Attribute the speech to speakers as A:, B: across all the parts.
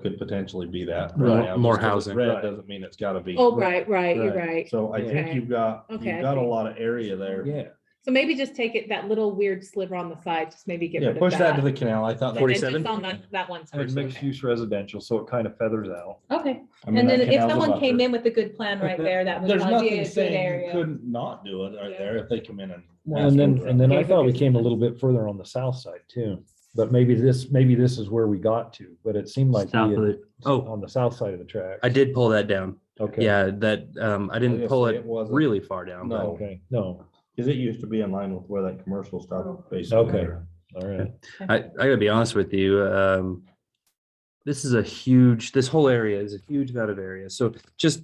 A: could potentially be that.
B: More-
A: right now,
B: more
A: just 'cause it's
B: housing.
A: Red doesn't mean it's gotta be.
C: Oh, right, right, you're right.
A: So I think
C: Okay.
A: you've got, you've
C: Okay, I
A: got a
C: see.
A: lot of area there.
B: Yeah.
C: So maybe just take it, that little weird sliver on the side, just maybe get
A: Yeah,
C: rid of
A: push that to
C: that.
A: the canal. I thought. that-
C: And then just
B: 47?
C: On that, that one.
D: And it's
C: person,
D: mixed use residential, so it kind of feathers out.
C: Okay,
A: I mean,
C: and
A: that
C: then if
A: canal's a
C: someone
A: buffer.
C: came in with a good plan right there, that would
A: There's
C: probably be
A: nothing
C: a good
A: saying you
C: area.
A: couldn't not do it right there if they come in and.
D: Well,
A: ask
D: and then,
A: for it.
D: and then I
C: Yeah,
D: thought we
C: because-
D: came a little bit further on the south side too, but maybe this, maybe this is where we got to, but it seemed like. we
B: South
D: had-
B: of the- oh.
D: On the south side of the track.
B: I did pull that down.
D: Okay.
B: Yeah, that, um, I didn't
A: Obviously,
B: pull it
A: it wasn't-
B: really far down. but-
A: No.
D: Okay, no,
A: Cause it used to be in line with where that commercial
C: Oh.
A: stopped basically.
D: Okay. all right.
B: I, I gotta be honest with you. Um, this is a huge, this whole area is a huge amount of area. So just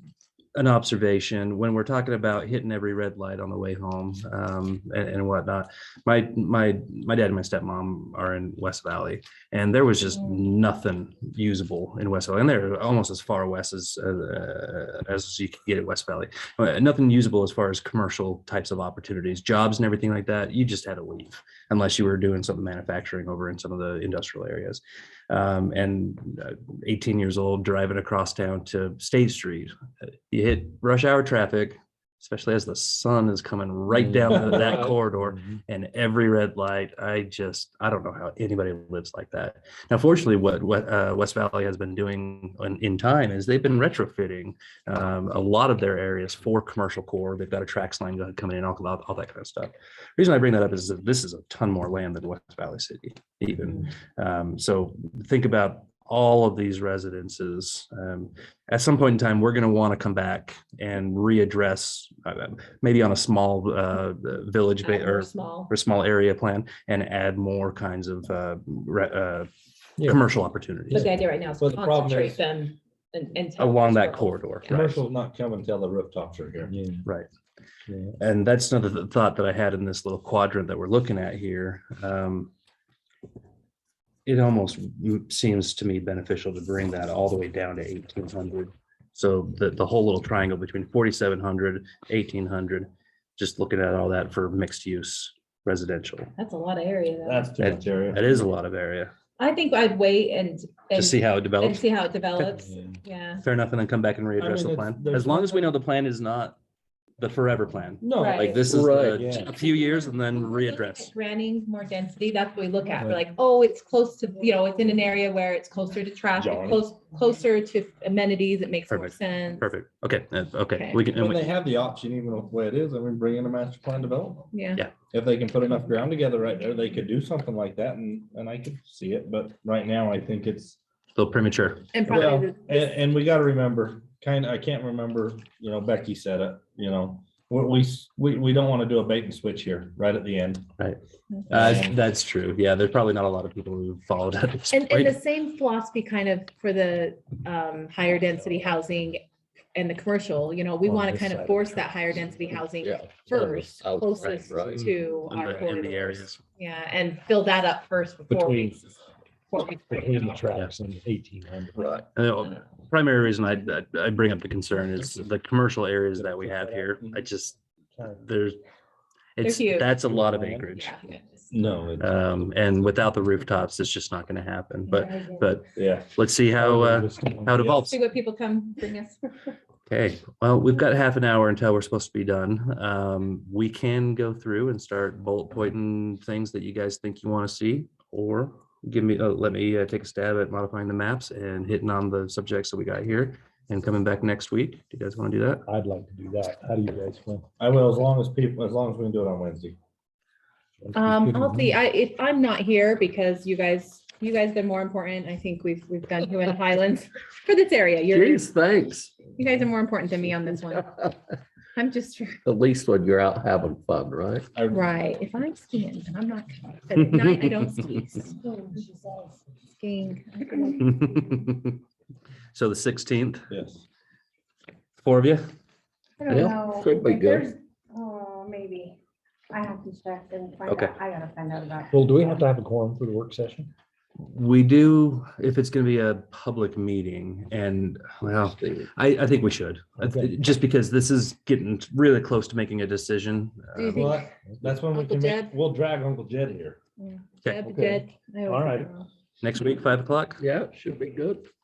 B: an observation, when we're talking about hitting every red light on the way home, um, and, and whatnot, my, my, my dad and my stepmom are in West Valley and there was just nothing usable in West Valley. And they're almost as far west as, uh, as you can get at West Valley. Uh, Nothing usable as far as commercial types of opportunities, jobs and everything like that. You just had to leave unless you were doing some manufacturing over in some of the industrial areas. Um, and uh, 18 years old, driving across town to State Street, uh, you hit rush hour traffic, especially as the sun is coming right down that- that corridor and every red light. I just, I don't know how anybody lives like that. Now, fortunately, what, what uh, West Valley has been doing in, in time is they've been retrofitting um, a lot of their areas for commercial core. They've got a trax line go- coming in, all, all all that kind of stuff reason I bring that up is that this is a ton more land than West Valley City even. Um, so think about all of these residences. Um, at some point in time, we're going to want to come back and readdress, uh, maybe on a small uh, village ba-
C: Or
B: or,
C: small.
B: or small area plan, and add more kinds of uh, re- uh,
D: Yeah.
B: commercial opportunities
C: But the idea right now is
A: But the problem is-
C: concentrate them and, and. tell
B: along
C: them
B: that
C: to-
B: corridor. right?
A: Commercial's not coming till the rooftops are here.
D: Yeah,
B: Right.
D: yeah.
B: and that's another th- thought that I had in this little quadrant that we're looking at here. Um, it almost m- seems to me beneficial to bring that all the way down to eighteen hundred. So the, the whole little triangle between 4700, 1800, just looking at all that for mixed use residential.
C: That's a lot of area though.
A: That's too much area.
B: That is a lot of area
C: I think I'd wait and,
B: to
C: and,
B: see how it
C: and
B: develops.
C: see how it develops.
D: Yeah.
C: Yeah.
B: Fair enough, and then come back and
A: mean,
B: readdress the
A: it's-
B: plan.
A: there's
B: As long as we know
A: nothing-
B: the plan is not the forever plan.
A: No,
C: Right.
B: Like this is
D: Right,
B: the-
D: yeah.
B: a few years and then
C: We're looking at
B: readdress.
C: Granting more density, that's what we look at. We're
D: Right.
C: like, oh, it's close to, you know, it's in an area where it's closer to traffic,
A: John.
C: close, closer to amenities, it makes more
B: Perfect.
C: sense.
B: Perfect. Okay, uh, okay.
C: Okay.
B: We can, and
A: when
B: we-
A: they have the option, even with the way it is, I mean, bring in a master plan development.
C: Yeah.
A: If they can put enough ground together right there, they could do something like that and, and I could see it, but right now I think it's.
B: little premature.
C: And
A: Well,
C: probably,
A: and, and we gotta remember, kinda, I can't remember, you know, Becky said it, you know, we, we, s- we, we don't wanna do a bait and switch here, right at the end.
B: Right. Uh,
A: Um,
B: that's true. Yeah, there's probably not a lot of people who followed at this
C: and, and
B: point.
C: the same philosophy kind of for the um, higher density housing and the commercial, you know, we
D: On
C: want to
D: this
C: kind
D: side
C: of
D: of
C: force
D: town.
C: that higher density housing
E: Yeah.
C: first,
E: Out, right,
C: closest
E: right.
C: to
B: Mm-hmm. In
C: our
B: the- in the
C: corridors.
B: areas.
C: Yeah, and fill that up first before
D: Between-
C: we. before we-
D: Between the tracks and eighteen hundred.
E: Right.
B: And the Primary reason I, I- I bring up the concern is the commercial areas that we have here. I just, there's, it's,
C: huge.
B: that's a lot of acreage.
C: Yeah.
A: No, it-
B: Um, and without the rooftops, it's just not going to happen. But, but
A: yeah,
B: let's see how, uh, how it evolves.
C: See what people come bring us.
B: Okay, well, we've got half an hour until we're supposed to be done. Um, we can go through and start bullet pointing things that you guys think you want to see. Or give me, uh, let me uh, take a stab at modifying the maps and hitting on the subjects that we got here and coming back next week. Do you guys want to do that?
D: I'd like to do that. How do you guys feel?
A: I will, as long as people, as long as we can do it on Wednesday.
C: Um, I'll see, I, if I'm not here because you guys, you guys been more important, I think we've, we've done Human Highlands for this area. You're, you
E: thanks.
C: guys are more important than me on this one. I'm just,
E: At least when you're out having fun, right?
A: I-
C: right, if I'm skiing, and I'm not, coming, but at night I don't ski. Skiing.
B: So the sixteenth,
A: Yes.
B: four of you?
F: I don't
E: Yeah,
F: know.
E: could be
F: Like,
E: good.
F: there's- Oh, maybe. I have to check and find
B: Okay.
F: out. I gotta find out about.
D: Well, do we have to have a quorum for the work session?
B: We do, if it's going to be a public meeting and, well, I, I think we should, I th-
D: Okay.
B: just because this is getting really close to making a decision.
C: Do you
B: Um,
A: Well, that- that's when we
C: Uncle
A: can, make-
C: Jed?
A: we'll drag Uncle Jed here.
B: Okay.
C: Deb, Deb, I always
D: All right.
C: get it wrong.
B: Next week, five o'clock?
E: Yeah, should be good.